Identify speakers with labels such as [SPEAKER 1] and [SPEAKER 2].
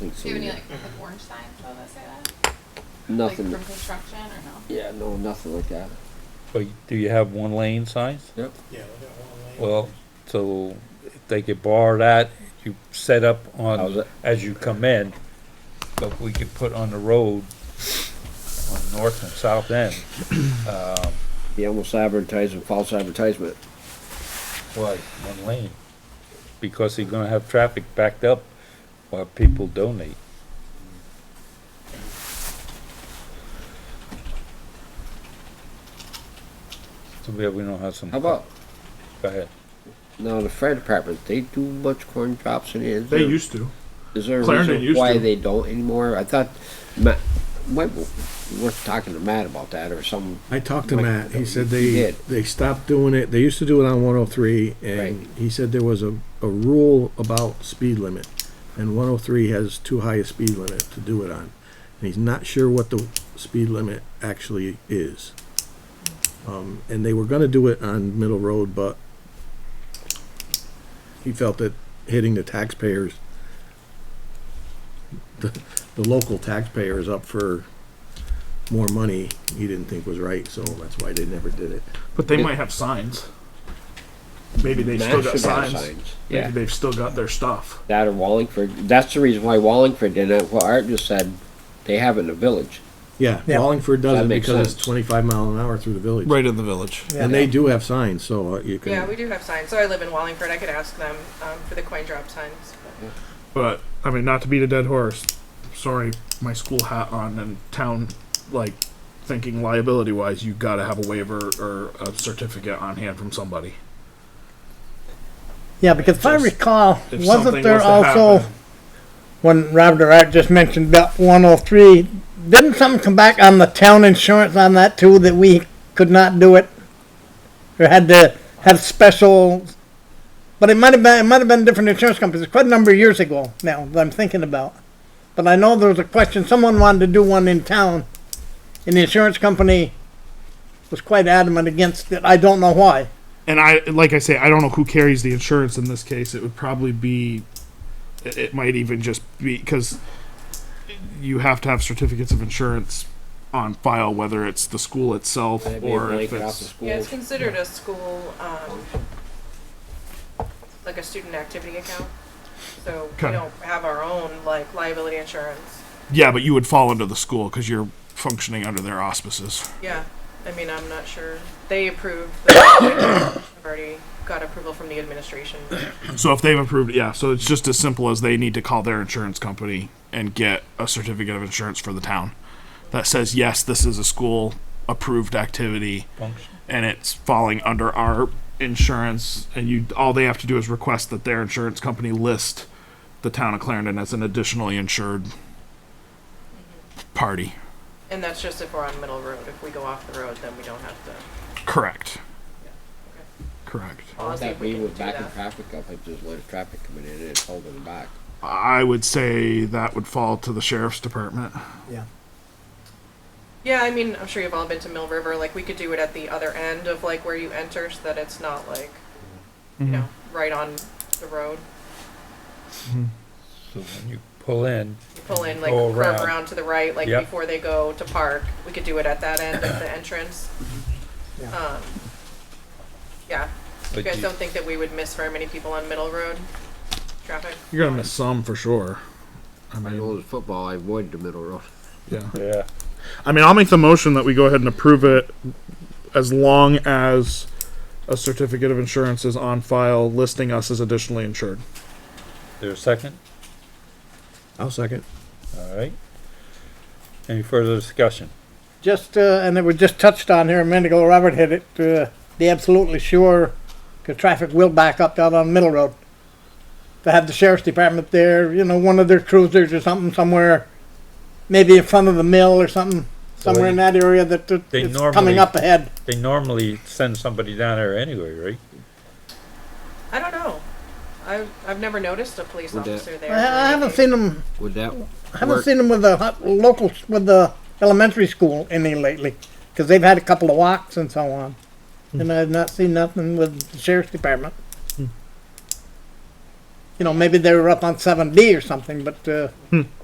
[SPEAKER 1] so
[SPEAKER 2] Do you have
[SPEAKER 1] we-
[SPEAKER 2] any like, like orange signs though that say that?
[SPEAKER 1] Nothing,
[SPEAKER 2] Like from construction or no?
[SPEAKER 1] yeah, no, nothing like that.
[SPEAKER 3] But do you have one lane signs?
[SPEAKER 1] Yep.
[SPEAKER 4] Yeah, we got one lane.
[SPEAKER 3] Well, so if they could borrow that, you set up
[SPEAKER 1] How's
[SPEAKER 3] on,
[SPEAKER 1] that?
[SPEAKER 3] as you come in, but we could put on the road on north and south end. Um,
[SPEAKER 1] He almost advertising, false advertisement.
[SPEAKER 3] Why, one lane? Because you're gonna have traffic backed up while people donate. So we have, we don't have some.
[SPEAKER 1] How about,
[SPEAKER 3] Go ahead.
[SPEAKER 1] now the fire department, they do much corn drops in here? Is
[SPEAKER 5] They
[SPEAKER 1] there-
[SPEAKER 5] used to.
[SPEAKER 1] Is there a
[SPEAKER 5] Clarendon
[SPEAKER 1] reason
[SPEAKER 5] used
[SPEAKER 1] why
[SPEAKER 5] to.
[SPEAKER 1] they don't anymore? I thought, Matt, might be worth talking to Matt about that or some,
[SPEAKER 5] I talked to
[SPEAKER 1] Like,
[SPEAKER 5] Matt. He said
[SPEAKER 1] he
[SPEAKER 5] they,
[SPEAKER 1] did.
[SPEAKER 5] they stopped doing it. They used to do it on one oh three
[SPEAKER 1] Right.
[SPEAKER 5] and he said there was a, a rule about speed limit. And one oh three has too high a speed limit to do it on. And he's not sure what the speed limit actually is. Um, and they were gonna do it on Middle Road, but he felt that hitting the taxpayers, the, the local taxpayers up for more money he didn't think was right, so that's why they never did it.
[SPEAKER 6] But they
[SPEAKER 1] Yeah.
[SPEAKER 6] might have signs. Maybe they've
[SPEAKER 1] Matt
[SPEAKER 6] still got
[SPEAKER 1] should have
[SPEAKER 6] signs.
[SPEAKER 1] signs.
[SPEAKER 6] Maybe
[SPEAKER 1] Yeah.
[SPEAKER 6] they've still got their stuff.
[SPEAKER 1] that or Wallingford. That's the reason why Wallingford did it, what Art just said, they have it in the village.
[SPEAKER 5] Yeah,
[SPEAKER 7] Yeah.
[SPEAKER 5] Wallingford does
[SPEAKER 1] That
[SPEAKER 5] it
[SPEAKER 1] makes
[SPEAKER 5] because
[SPEAKER 1] sense.
[SPEAKER 5] it's twenty-five mile an hour through the village.
[SPEAKER 7] Right in the village.
[SPEAKER 5] And they do have signs, so uh, you
[SPEAKER 2] Yeah, we
[SPEAKER 5] can,
[SPEAKER 2] do have signs. So I live in Wallingford. I could ask them um, for the coin drop signs.
[SPEAKER 6] But I mean, not to beat a dead horse. Sorry, my school hat on and town like thinking liability wise, you gotta have a waiver or a certificate on hand from somebody.
[SPEAKER 7] Yeah, because if I
[SPEAKER 6] Just-
[SPEAKER 7] recall,
[SPEAKER 6] If
[SPEAKER 7] wasn't
[SPEAKER 6] something
[SPEAKER 7] there
[SPEAKER 6] was to
[SPEAKER 7] also,
[SPEAKER 6] happen,
[SPEAKER 7] when Robert or Art just mentioned about one oh three, didn't something come back on the town insurance on that too, that we could not do it? Or had to have special, but it might have been, it might have been different insurance companies, quite a number of years ago now that I'm thinking about. But I know there was a question, someone wanted to do one in town, and the insurance company was quite adamant against it, I don't know why.
[SPEAKER 6] and I like I say, I don't know who carries the insurance in this case. It would probably be, it it might even just be because you have to have certificates of insurance on file, whether it's the school itself
[SPEAKER 1] That'd be a
[SPEAKER 6] or if
[SPEAKER 1] blanket off the
[SPEAKER 6] it's.
[SPEAKER 1] school.
[SPEAKER 2] Yeah, it's considered a school, um, like a student activity account. So we
[SPEAKER 6] Okay.
[SPEAKER 2] don't have our own like liability insurance.
[SPEAKER 6] Yeah, but you would fall under the school because you're functioning under their auspices.
[SPEAKER 2] Yeah, I mean, I'm not sure. They approved. The I've already got approval from the administration.
[SPEAKER 6] So if they've approved, yeah. So it's just as simple as they need to call their insurance company and get a certificate of insurance for the town that says yes, this is a school approved activity. and it's falling under our insurance and you all they have to do is request that their insurance company list the town of Clarendon as an additionally insured party.
[SPEAKER 2] And that's just if we're on Middle Road. If we go off the road, then we don't have to.
[SPEAKER 6] Correct. Correct.
[SPEAKER 2] I'll see if
[SPEAKER 1] Oh, That
[SPEAKER 2] we
[SPEAKER 1] we
[SPEAKER 2] can
[SPEAKER 1] were
[SPEAKER 2] do
[SPEAKER 1] backing
[SPEAKER 2] that.
[SPEAKER 1] traffic up, it just let traffic coming in and it's holding them back.
[SPEAKER 6] I would say that would fall to the sheriff's department.
[SPEAKER 2] Yeah, I mean, I'm sure you've all been to Mill River. Like, we could do it at the other end of like where you enter, so that it's not like, you know, right on the road.
[SPEAKER 3] So when you pull in,
[SPEAKER 2] You pull in, like,
[SPEAKER 3] Go
[SPEAKER 2] curve
[SPEAKER 3] around.
[SPEAKER 2] around. to the right, like
[SPEAKER 3] Yep.
[SPEAKER 2] before they go to park. We could do it at that end of the entrance.
[SPEAKER 7] Yeah.
[SPEAKER 2] Um, yeah. You
[SPEAKER 3] But
[SPEAKER 2] guys
[SPEAKER 3] you-
[SPEAKER 2] don't think that we would miss very many people on Middle Road traffic?
[SPEAKER 6] You're gonna miss some for sure. I
[SPEAKER 1] I
[SPEAKER 6] mean,
[SPEAKER 1] know the football, I avoid the middle road.
[SPEAKER 6] yeah.
[SPEAKER 3] yeah,
[SPEAKER 6] I mean, I'll make the motion that we go ahead and approve it as long as a certificate of insurance is on file listing us as additionally insured.
[SPEAKER 3] there a second?
[SPEAKER 5] I'll second.
[SPEAKER 3] All right. Any further discussion?
[SPEAKER 7] just, uh, and it was just touched on here a minute ago, Robert hit it, uh, be absolutely sure, cause traffic will back up down on Middle Road. To have the sheriff's department there, you know, one of their cruisers or something somewhere, maybe in front of the mill or something, somewhere in that area that that
[SPEAKER 3] They
[SPEAKER 7] it's
[SPEAKER 3] normally-
[SPEAKER 7] coming up ahead.
[SPEAKER 3] They normally send somebody down there anyway, right?
[SPEAKER 2] I don't know. I've, I've never noticed a police
[SPEAKER 1] Would that-
[SPEAKER 2] officer there.
[SPEAKER 7] I, I haven't seen them,
[SPEAKER 1] Would that
[SPEAKER 7] I haven't
[SPEAKER 1] work?
[SPEAKER 7] seen them with the hot- locals, with the elementary school any lately, cause they've had a couple of walks and so on. And I've not seen nothing with the sheriff's department. You know, maybe they were up on seven D or something, but, uh,